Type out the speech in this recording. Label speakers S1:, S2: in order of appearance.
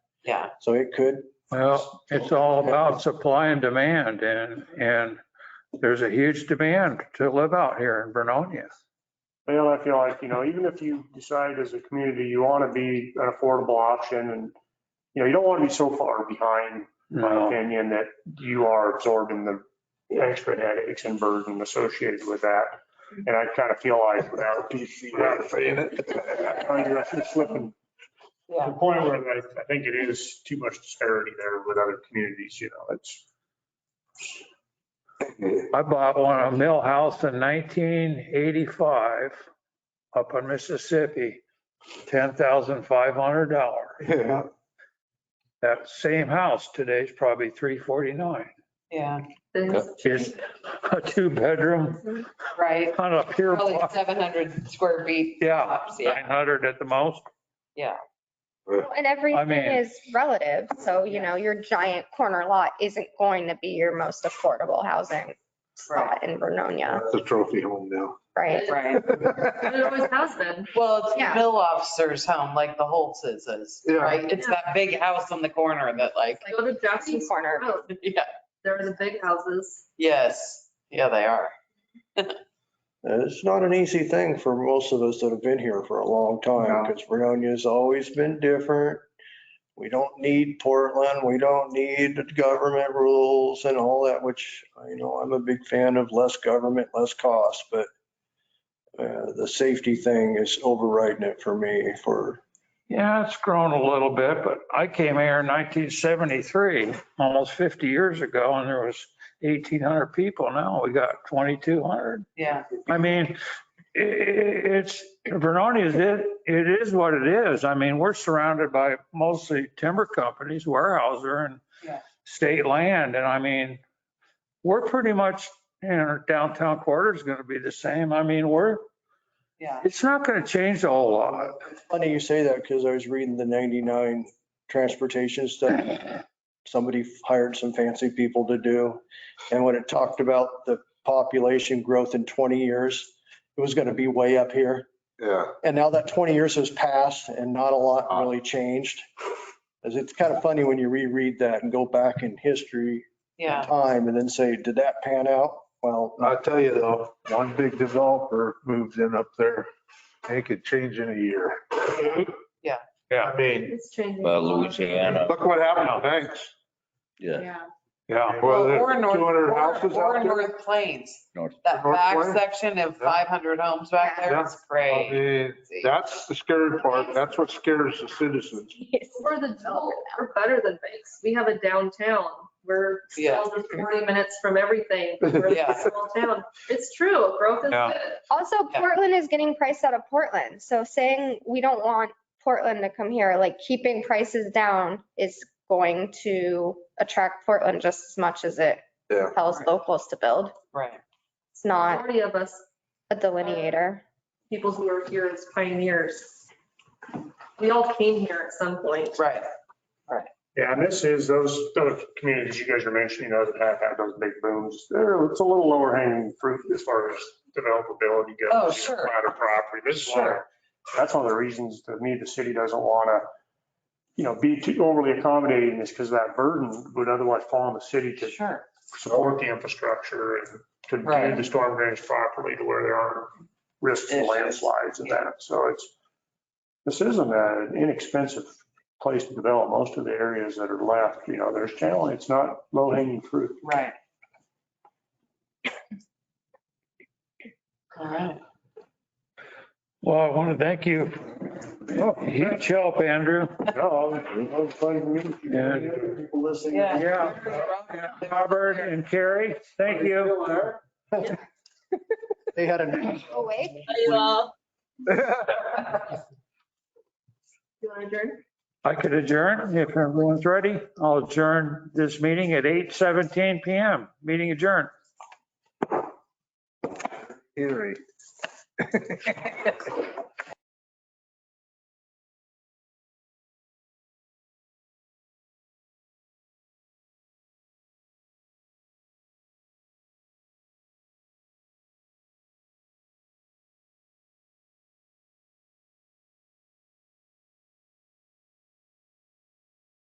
S1: Yeah.
S2: So it could,
S3: Well, it's all about supply and demand and, and there's a huge demand to live out here in Vernonia.
S4: Well, I feel like, you know, even if you decide as a community, you want to be an affordable option and, you know, you don't want to be so far behind, in my
S3: No,
S4: opinion, that you are absorbing the extra headaches and burden associated with that. And I kind of feel like without
S5: PC ratifying it.
S4: you're slipping to the
S1: Yeah.
S4: point where I, I think it is too much disparity there with other communities, you know, it's,
S3: I bought one, a mill house in 1985 up in Mississippi, $10,500.
S5: Yeah,
S3: That same house today is probably 349.
S1: Yeah,
S3: Is a two bedroom
S1: right.
S3: on a pure
S1: Probably
S3: block.
S1: 700 square feet.
S3: Yeah,
S1: tops, Yeah,
S3: 900 at the most.
S1: yeah.
S6: Well, And everything
S3: mean-
S6: is relative, so you know, your giant corner lot isn't going to be your most affordable housing spot in Vernonia,
S5: that's a trophy home now.
S6: right?
S5: Oh,
S1: Right.
S7: It always has been.
S1: Well, it's the
S6: Yeah.
S1: mill officer's home, like the Holtz's is,
S5: Yeah.
S1: right? It's that big house on the corner that like,
S7: Go to Jackson's
S6: Corner.
S7: Road.
S1: yeah,
S7: There were the big houses.
S1: yes, yeah, they are.
S2: and it's not an easy thing for most of us that have been here for a long time,
S5: No.
S2: because Veronia's always been different. We don't need Portland, we don't need government rules and all that, which, you know, I'm a big fan of less government, less cost, but uh, the safety thing is overriding it for me for
S3: Yeah, it's grown a little bit, but I came here in 1973, almost 50 years ago, and there was 1,800 people. Now we got 2,200.
S1: Yeah,
S3: I mean, i- i- it's, Vernonia is, it, it is what it is. I mean, we're surrounded by mostly timber companies, warehouser and
S1: Yeah.
S3: state land. And I mean, we're pretty much, you know, downtown quarter is going to be the same. I mean, we're,
S1: yeah.
S3: it's not going to change a whole lot.
S2: Funny you say that because I was reading the 99 transportation stuff. Somebody hired some fancy people to do. And when it talked about the population growth in 20 years, it was going to be way up here.
S5: Yeah.
S2: And now that 20 years has passed and not a lot really changed. 'Cause it's kind of funny when you reread that and go back in history,
S1: Yeah,
S2: time, and then say, did that pan out? Well,
S5: I'll tell you though, one big developer moves in up there, they could change in a year.
S1: Yeah.
S3: Yeah.
S5: I mean,
S7: It's changing.
S8: Well, Louisiana,
S5: look what happened to Banks.
S8: yeah,
S3: Yeah.
S5: Well, there's
S1: Or North-
S5: 200
S1: or-
S5: houses
S1: or
S5: out there.
S1: North Plains,
S8: North-
S1: that
S5: North
S1: back
S5: Plains?
S1: section of 500 homes back there,
S5: Yeah.
S1: it's
S5: I
S1: crazy.
S5: mean, that's the scary part. That's what scares the citizens.
S7: We're the, we're better than banks. We have a downtown. We're
S1: Yeah.
S7: 40 minutes from everything. We're
S1: Yeah.
S7: a small town. It's true. Growth is
S3: Yeah.
S7: good.
S6: Also,
S1: Yeah.
S6: Portland is getting priced out of Portland, so saying we don't want Portland to come here, like keeping prices down is going to attract Portland just as much as it
S5: Yeah.
S6: tells
S1: Right.
S6: locals to build.
S1: Right,
S6: It's not
S7: Majority of us,
S6: a delineator.
S7: people who are here as pioneers. We all came here at some point.
S1: right.
S4: yeah, and this is, those, those communities you guys are mentioning, those that have had those big booms, they're, it's a little lower hanging fruit as far as developability goes.
S1: Oh, sure.
S4: Flatter property, this is one of
S1: Sure.
S4: that's one of the reasons to me the city doesn't want to, you know, be too overly accommodating is because that burden would otherwise fall on the city to
S1: Sure.
S4: support the infrastructure and to
S1: Right.
S4: do the storm drains properly to where there aren't risks of
S1: Issues.
S4: landslides and that. So it's, this isn't an inexpensive place to develop. Most of the areas that are left, you know, there's challenge. It's not low hanging fruit.
S1: Right. All right.
S3: Well, I want to thank you.
S5: Oh,
S3: Huge help, Andrew.
S4: No, it was fun to meet you.
S3: Yeah.
S4: Any other People listening.
S1: Yeah.
S3: Robert and Carrie, thank you.
S2: they had a,
S6: Awake?
S7: You want to adjourn?
S3: I could adjourn if everyone's ready. I'll adjourn this meeting at 8:17 PM. Meeting adjourned.
S5: Eerie.